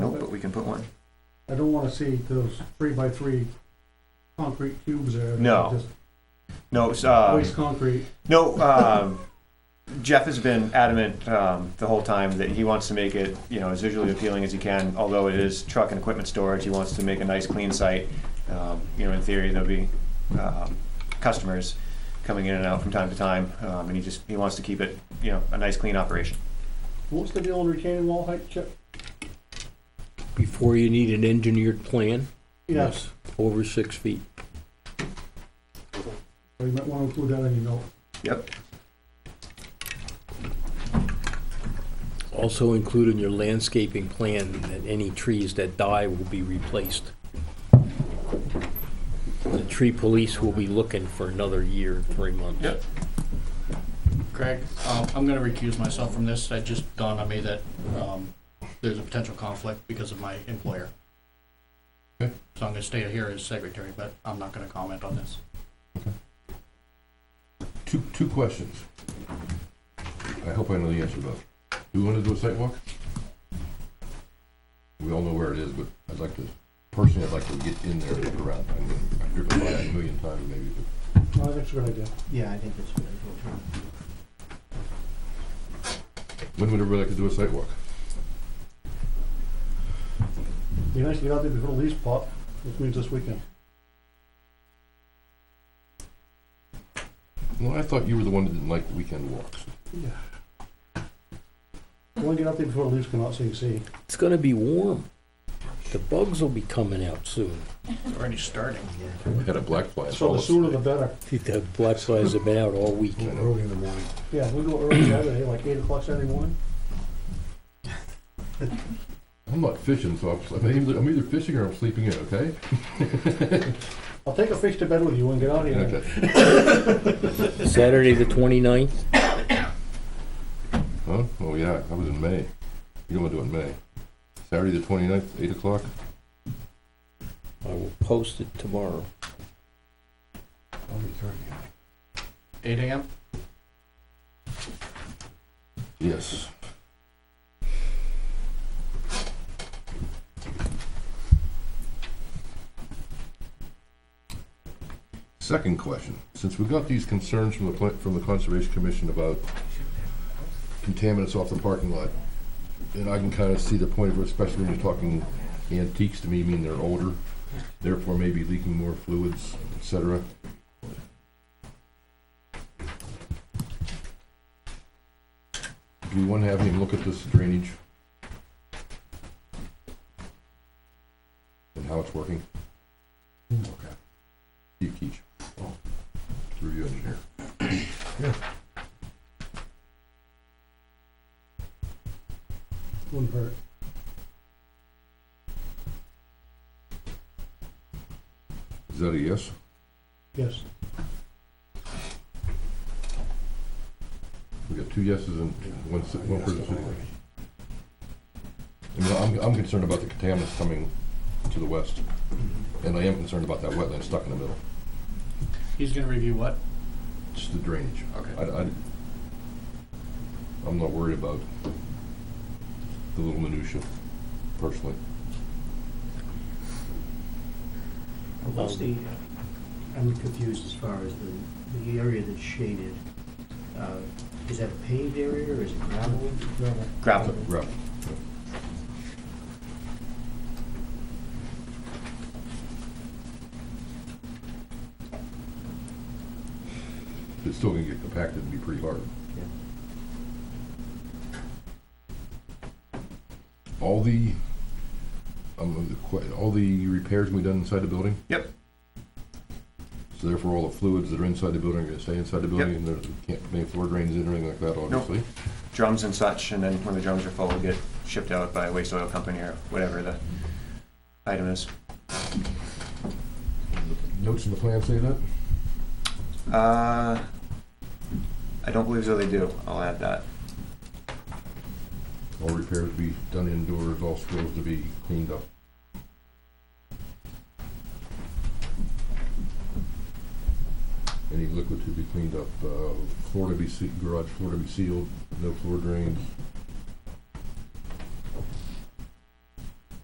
can put one. I don't wanna see those three by three concrete cubes there. No. Just No, it's, uh, Waste concrete. no, um, Jeff has been adamant, um, the whole time that he wants to make it, you know, as visually appealing as he can, although it is truck and equipment storage, he wants to make a nice, clean site. Um, You know, in theory, there'll be, um, customers coming in and out from time to time, um, and he just, he wants to keep it, you know, a nice, clean operation. What's the deal on retaining wall height, Chip? Before you need an engineered plan, Yes. over six feet. So you might wanna include that in your note. Yep. Also include in your landscaping plan that any trees that die will be replaced. The tree police will be looking for another year, and three months. Yep. Craig, um, I'm gonna recuse myself from this. It just dawned on me that, um, there's a potential conflict because of my employer. Okay. So I'm gonna stay here as secretary, but I'm not gonna comment on this. Two, two questions. I hope I know the answer to those. Do we want to do a site walk? We all know where it is, but I'd like to, personally, I'd like to get in there and look around. I mean, I've driven by it a million times maybe, but No, I think it's a good idea. Yeah, I think that's what I told you. when would everybody like to do a site walk? Be nice to get out there before the leaves pop, which means this weekend. Well, I thought you were the one that didn't like weekend walks. Yeah. I wanna get out there before the leaves come out so you can see. It's gonna be warm. The bugs will be coming out soon. It's already starting. I had a black fly. in So the Dallas sooner the today. better. The black flies have been out all week. I know. in the morning. Yeah, we go early Saturday, like eight o'clock Saturday morning. I'm not fishing, so I'm, I'm either- I'm either fishing or I'm sleeping in, okay? I'll take a fish to bed with you and get out of here. Okay. Saturday, the 29th. Huh? Oh, yeah, I was in May. You don't want to do it in May. Saturday, the 29th, 8 o'clock? I will post it tomorrow. I'll return you. Eight AM? Yes. Second question, since we got these concerns from the, pla- from the Conservation Commission about contaminants off the parking lot, and I can kind of see the point of it, especially when you're talking antiques to me, mean they're older, therefore maybe leaking more fluids, et cetera. Do we want to have him look at this drainage? And how it's working? Okay. Steve Keach. Review engineer. Wouldn't hurt. Is that a yes? Yes. We got two yeses and one, si- one person sitting there. I mean, I'm, I'm concerned about the contaminants coming to the west, and I am concerned about that wetland stuck in the middle, He's gonna review what? just the drainage. Okay. I, I, I'm not worried about the little minutia, personally. What's the, uh, I'm confused as far as the, the area that's shaded. Uh, Is that a paved area or is it gravel? Gravel. Gravel. Right. It's still gonna get compacted and be pretty hard. Yeah. All the, um, the que- all the repairs can be done inside the building? Yep. So therefore, all the fluids that are inside the building are gonna stay inside the building, Yep. and there's, can't, make floor drains in or anything like that, obviously? drums and such, and then when the drums are full, get shipped out by a waste oil company or whatever the item is. Notes in the plan say that? Uh, I don't believe so they do. I'll add that. All repairs to be done indoors, all spills to be cleaned up. Any liquid to be cleaned up, uh, floor to be sealed, garage floor to be sealed, no floor drains,